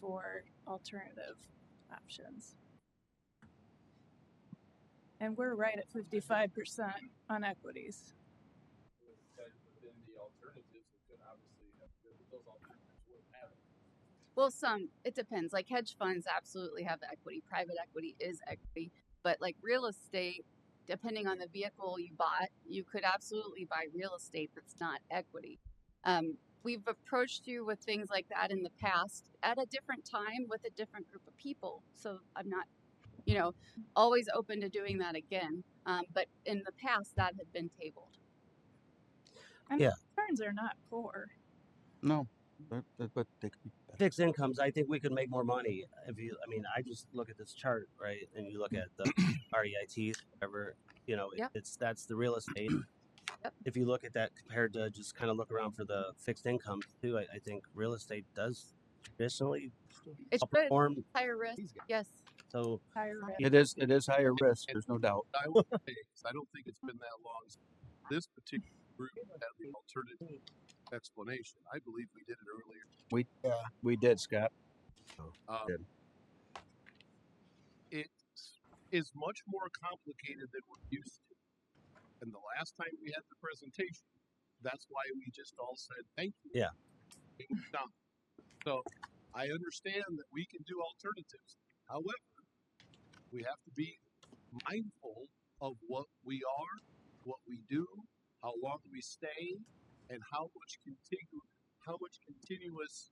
for alternative options. And we're right at fifty-five percent on equities. But then the alternatives that could obviously have, those alternatives wouldn't have it. Well, some it depends. Like hedge funds absolutely have equity. Private equity is equity, but like real estate, depending on the vehicle you bought, you could absolutely buy real estate that's not equity. Um, we've approached you with things like that in the past at a different time with a different group of people. So I'm not, you know, always open to doing that again. Um, but in the past, that had been tabled. And Yeah. returns are not poor. No, but, but, but they could be better. fixed incomes, I think we could make more money uh, if you. I mean, I just look at this chart, right? And you look at the REITs, whatever. You know, it- Mm. Yep. it's that's the real estate. Yep. If you look at that compared to just kind of look around for the fixed income too, I, I think real estate does traditionally It should outperform. higher risk. He's got- Yes. So Higher risk. It is, it is higher risk, there's no doubt. I will say, 'cause I don't think it's been that long since this particular group had the alternative explanation. I believe we did it earlier. We, we did, Scott. Um, Good. It is much more complicated than we're used to. And the last time we had the presentation, that's why we just all said thank you. Yeah. It was done. So I understand that we can do alternatives. However, we have to be mindful of what we are, what we do, how long we stay, and how much continu- how much continuous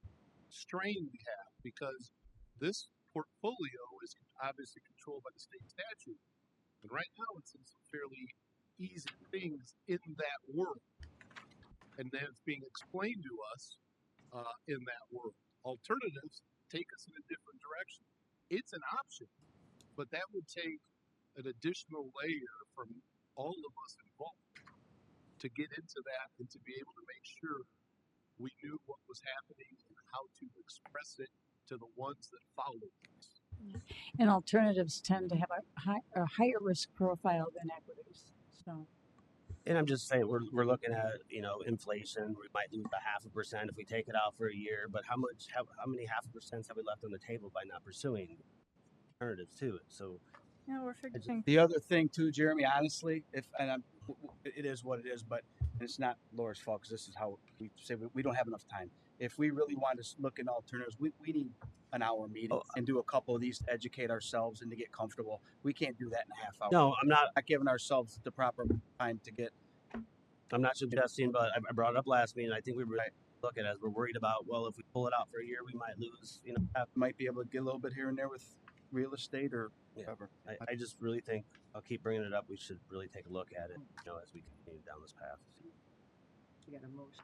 strain we have because this portfolio is obviously controlled by the state statute. And right now, it's in some fairly easy things in that world. And then it's being explained to us uh, in that world. Alternatives take us in a different direction. It's an option, but that would take an additional layer from all of us involved to get into that and to be able to make sure we knew what was happening and how to express it to the ones that follow us. And alternatives tend to have a, high, a higher risk profile than equities. So, And I'm just saying, we're, we're looking at, you know, inflation, we might lose a half a percent if we take it out for a year, but how much, how, how many half a percents have we left on the table by not pursuing alternatives to it? So Yeah, we're just- figuring The other thing too, Jeremy, honestly, if, and I'm, w- w- it is what it is, but it's not Laura's fault, cause this is how we say, we, we don't have enough time. If we really want to s- look at alternatives, we, we need an hour meeting Oh, and do a couple of these to educate ourselves and to get comfortable. We can't do that in a half hour. No, I'm not. Not giving ourselves the proper time to get I'm not suggesting, but I, I brought it up last meeting. I think we were Right. looking as we're worried about. Well, if we pull it out for a year, we might lose. You know, half. uh, might be able to get a little bit here and there with real estate or Yeah. whatever. I, I just really think I'll keep bringing it up. We should really take a look at it. You know, as we continue down this path. you got a motion.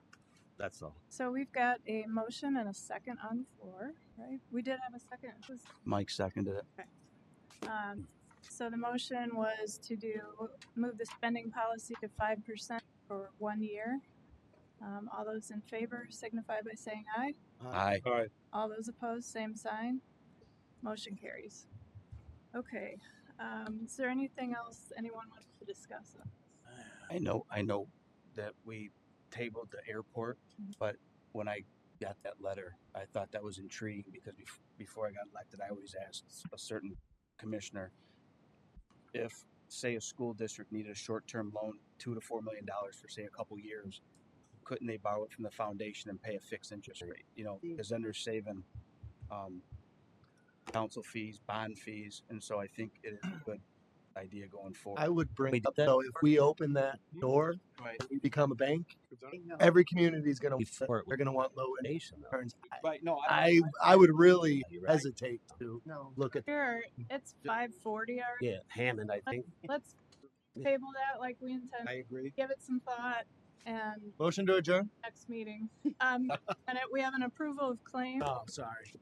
That's all. So we've got a motion and a second on the floor, right? We did have a second. It was, Mike seconded it. um, so the motion was to do, move the spending policy to five percent for one year. Um, all those in favor signify by saying aye. Aye. All those opposed, same sign. Motion carries. Okay, um, is there anything else anyone wants to discuss? I know, I know that we tabled the airport, Mm-hmm. but when I got that letter, I thought that was intriguing because bef- before I got elected, I always asked s- a certain commissioner if, say, a school district needed a short-term loan, two to four million dollars for, say, a couple years, couldn't they borrow it from the foundation and pay a fixed interest rate? You know, because then they're saving, um, council fees, bond fees, and so I think it is a good idea going forward. I would We bring did up that. though, if we open that Mhm. door, Right. we become a bank. No. Every community is going to Before it they're going to want low interest Nation, though. returns. I- Right, no, I I would really Yeah, you're right. hesitate to look at Sure, it's five forty already. Yeah, Hammond. I think Let's table that like we intend. agree. give it some thought and motion to adjourn. next meeting. Um, and it- we have an approval of claim, Oh, sorry.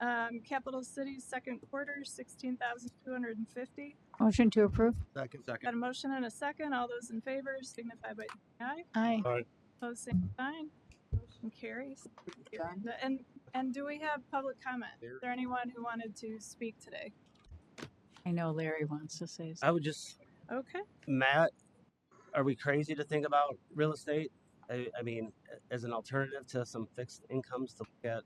um, Capital City's second quarter, sixteen thousand two hundred and fifty. Motion to approve? Second. Got a motion and a second. All those in favor signify by saying aye. Aye. Opposed, same sign. Motion carries. And, and do we have public comment? Is there anyone who wanted to speak today? I know Larry wants to say something. I would just Okay, Matt. Are we crazy to think about real estate? I, I mean, a- as an alternative to some fixed incomes to look at